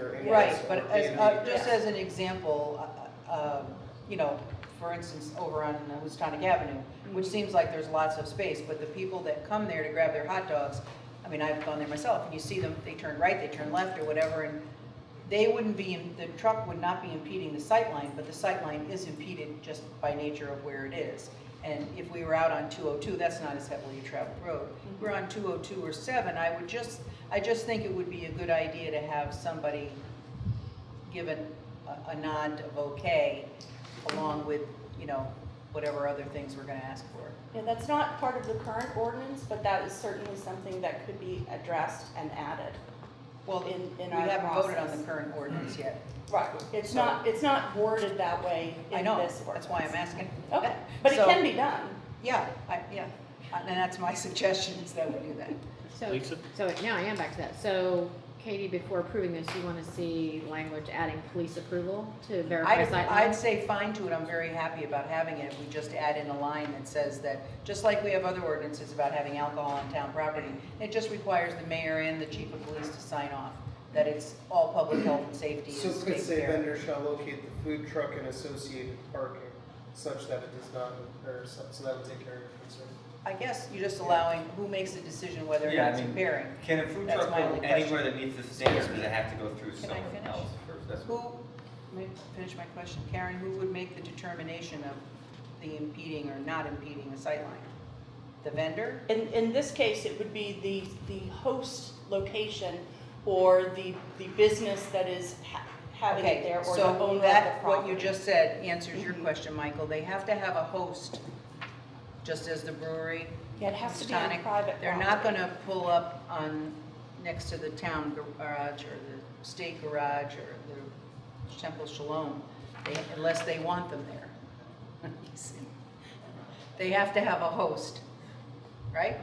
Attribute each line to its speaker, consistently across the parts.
Speaker 1: area.
Speaker 2: Right,
Speaker 1: so
Speaker 2: but
Speaker 1: they
Speaker 2: as,
Speaker 1: would
Speaker 2: uh,
Speaker 1: be
Speaker 2: just
Speaker 1: grass.
Speaker 2: as an example, uh, uh, you know, for instance, over on Houstonic Avenue, which seems like there's lots of space, but the people that come there to grab their hot dogs, I mean, I've gone there myself, and you see them, they turn right, they turn left or whatever, and they wouldn't be, in- the truck would not be impeding the sight line, but the sight line is impeded just by nature of where it is. And if we were out on 202, that's not as heavily traveled road. If We're on 202 or 7, I would just, I just think it would be a good idea to have somebody given a, a nod of okay, along with, you know, whatever other things we're gonna ask for.
Speaker 3: Yeah, that's not part of the current ordinance, but that is certainly something that could be addressed and added.
Speaker 2: Well,
Speaker 3: In-
Speaker 2: we
Speaker 3: in our
Speaker 2: haven't voted on
Speaker 3: process.
Speaker 2: the current ordinance yet.
Speaker 3: Right. It's not, it's not worded that way
Speaker 2: I
Speaker 3: in
Speaker 2: know,
Speaker 3: this ordinance.
Speaker 2: that's why I'm asking.
Speaker 3: Okay, but it
Speaker 2: So,
Speaker 3: can be done.
Speaker 2: Yeah, I, yeah, and that's my suggestion, is that we do that.
Speaker 4: So,
Speaker 5: Lisa?
Speaker 4: so now I am back to that. So Katie, before approving this, you want to see language adding police approval to verify
Speaker 2: I'd,
Speaker 4: sight
Speaker 2: I'd
Speaker 4: lines?
Speaker 2: say fine to it, I'm very happy about having it, we just add in a line that says that, just like we have other ordinances about having alcohol on town property, it just requires the mayor and the chief of police to sign off, that it's all public health and safety
Speaker 1: So
Speaker 2: is
Speaker 1: it could
Speaker 2: taken
Speaker 1: say
Speaker 2: care of.
Speaker 1: vendor shall locate the food truck and associated parking such that it does not, or so so that would take care of your concern.
Speaker 2: I guess you're just allowing, who makes the decision whether or
Speaker 6: Yeah, I
Speaker 2: not it's
Speaker 6: mean-
Speaker 2: impairing?
Speaker 6: Can a food
Speaker 2: That's
Speaker 6: truck
Speaker 2: my
Speaker 6: go
Speaker 2: only
Speaker 6: anywhere that meets the standards, or does it have to go through
Speaker 2: Can I
Speaker 6: someone
Speaker 2: finish?
Speaker 6: else first? That's
Speaker 2: Who, let me finish my question, Karen, who would make the determination of the impeding or not impeding a sightline? The vendor?
Speaker 3: In, in this case, it would be the, the host location or the, the business that is ha- having it there or the owner
Speaker 2: Okay, so
Speaker 3: of the
Speaker 2: that, what
Speaker 3: property.
Speaker 2: you just said answers your
Speaker 3: Mhm.
Speaker 2: question, Michael, they have to have a host, just as the brewery.
Speaker 3: Yeah, it has to be on
Speaker 2: Houstonic.
Speaker 3: private
Speaker 2: They're not
Speaker 3: property.
Speaker 2: gonna pull up on, next to the town garage or the state garage or the Temple Shalom, they- unless they want them there. They have to have a host, right?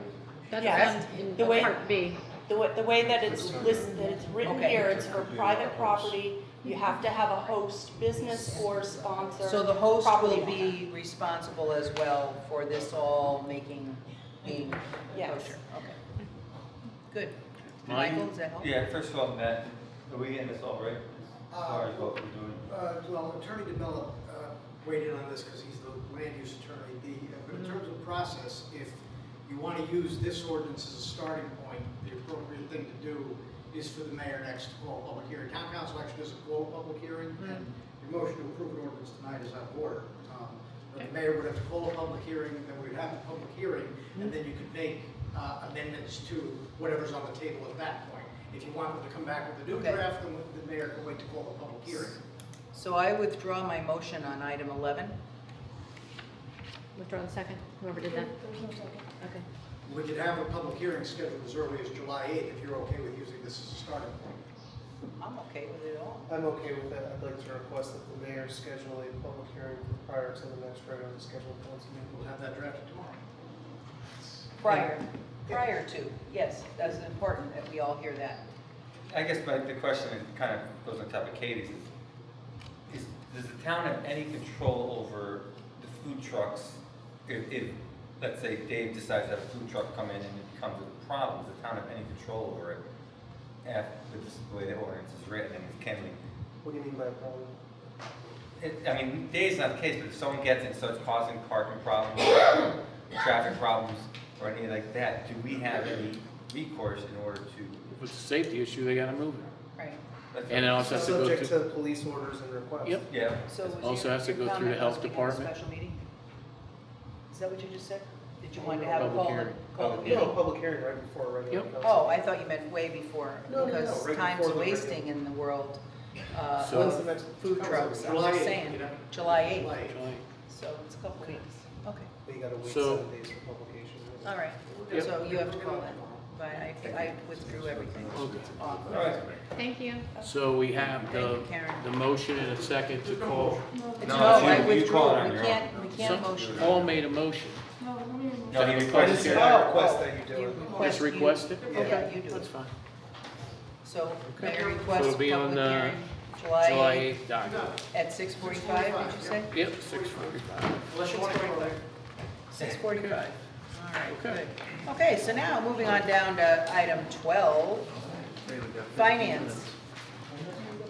Speaker 3: Yes.
Speaker 4: That's on,
Speaker 3: The
Speaker 4: in
Speaker 3: way-
Speaker 4: part B.
Speaker 3: The way, the way that it's listed, that it's written
Speaker 2: Okay.
Speaker 3: here, it's for private property, you have to have a host, business or sponsor.
Speaker 2: So the host
Speaker 3: property
Speaker 2: will
Speaker 3: owner.
Speaker 2: be responsible as well for this all making, being
Speaker 3: Yes.
Speaker 2: kosher, okay. Good.
Speaker 5: Mine?
Speaker 2: Michael, does that help?
Speaker 6: Yeah, first of all, Matt, are we getting this all right? As far as what we're doing?
Speaker 7: Uh, Well, Attorney DeMello uh, weighed in on this because he's the land use attorney. The, uh, but in terms of process, if you want to use this ordinance as a starting point, the appropriate thing to do is for the mayor next to call a public hearing. Town council actually doesn't call a public hearing, and your motion to approve an ordinance tonight is out of order. Um, But the mayor would have to call a public hearing, then we'd have a public hearing, and then you could make uh, amendments to whatever's on the table at that point. If you want them to come back with a new
Speaker 2: Okay.
Speaker 7: draft, then the mayor can wait to call a public hearing.
Speaker 2: So I withdraw my motion on item 11.
Speaker 4: Withdraw the second, whoever did that. Okay.
Speaker 7: We could have a public hearing scheduled as early as July 8th, if you're okay with using this as a starting point.
Speaker 2: I'm okay with it all.
Speaker 1: I'm okay with that. I'd like to request that the mayor schedule a public hearing prior to the next regularly scheduled council meeting.
Speaker 7: We'll have that drafted tomorrow.
Speaker 2: Prior, prior to, yes, that's important that we all hear that.
Speaker 6: I guess my, the question is kind of goes on top of Katie's. is- Is, does the town have any control over the food trucks? If, if, let's say Dave decides to have a food truck come in and it becomes a problem, does the town have any control over it? Af with this- the way the ordinance is written and it can be,
Speaker 1: What do you mean by a problem?
Speaker 6: it, I mean, Dave's not the case, but if someone gets it, starts causing parking problems, traffic problems, or anything like that, do we have any recourse in order to?
Speaker 5: If it's a safety issue, they gotta move it.
Speaker 2: Right.
Speaker 6: that's-
Speaker 5: And it also has to go
Speaker 1: Subject
Speaker 5: through,
Speaker 1: to police orders and requests.
Speaker 5: Yep.
Speaker 6: Yeah.
Speaker 2: So was
Speaker 5: Also
Speaker 2: your-
Speaker 5: has to
Speaker 2: your
Speaker 5: go through the
Speaker 2: comment
Speaker 5: health
Speaker 2: was we have a
Speaker 5: department.
Speaker 2: Special meeting? Is that what you just said? Did you want to have a
Speaker 5: Public
Speaker 2: call?
Speaker 5: hearing. Oh,
Speaker 2: call
Speaker 6: Public
Speaker 2: the
Speaker 1: Oh, No,
Speaker 2: meeting?
Speaker 1: a public hearing right before a regular
Speaker 5: Yep.
Speaker 1: council.
Speaker 2: Oh, I thought you meant way before,
Speaker 1: No, no, no,
Speaker 2: because
Speaker 1: right
Speaker 2: time's
Speaker 1: before the
Speaker 2: wasting in the world. uh,
Speaker 5: So-
Speaker 1: When's
Speaker 2: of
Speaker 1: the next
Speaker 2: Food
Speaker 1: council
Speaker 2: trucks,
Speaker 1: meeting?
Speaker 2: I'm
Speaker 7: July
Speaker 2: just
Speaker 7: 8th,
Speaker 2: saying,
Speaker 7: you know?
Speaker 2: July 8th,
Speaker 7: July
Speaker 5: July.
Speaker 2: so it's a couple weeks. Okay,
Speaker 1: But you gotta wait
Speaker 5: So-
Speaker 1: seven days for publication.
Speaker 2: all right,
Speaker 5: Yep.
Speaker 2: so you have to call that, but I, I withdrew everything.
Speaker 5: Okay.
Speaker 2: Off.
Speaker 6: All right.
Speaker 4: Thank you.
Speaker 5: so we have the,
Speaker 2: Thank you, Karen.
Speaker 5: the motion and a second to call.
Speaker 2: It's
Speaker 6: No,
Speaker 2: no,
Speaker 6: it's you-
Speaker 2: I
Speaker 6: you
Speaker 2: withdrew,
Speaker 6: call it on
Speaker 2: we
Speaker 6: your
Speaker 2: can't, we can't
Speaker 5: Some-
Speaker 2: motion.
Speaker 5: Paul made a motion.
Speaker 6: No, he
Speaker 1: I
Speaker 6: requested.
Speaker 1: just,
Speaker 6: it.
Speaker 1: I request that you do it.
Speaker 5: Just request it?
Speaker 2: Yeah,
Speaker 5: Okay,
Speaker 2: you do
Speaker 5: That's
Speaker 2: it.
Speaker 5: fine.
Speaker 2: So
Speaker 5: Okay.
Speaker 2: mayor
Speaker 5: So
Speaker 2: requests
Speaker 5: it'll be on
Speaker 2: public
Speaker 5: the
Speaker 2: hearing,
Speaker 5: July
Speaker 2: July
Speaker 5: eighth document.
Speaker 2: at six forty-five, did you say?
Speaker 5: Yep, six forty-five.
Speaker 7: Unless you want to go there.
Speaker 2: Six forty-five. All right,
Speaker 5: Okay.
Speaker 2: good. Okay, so now moving on down to item twelve, finance.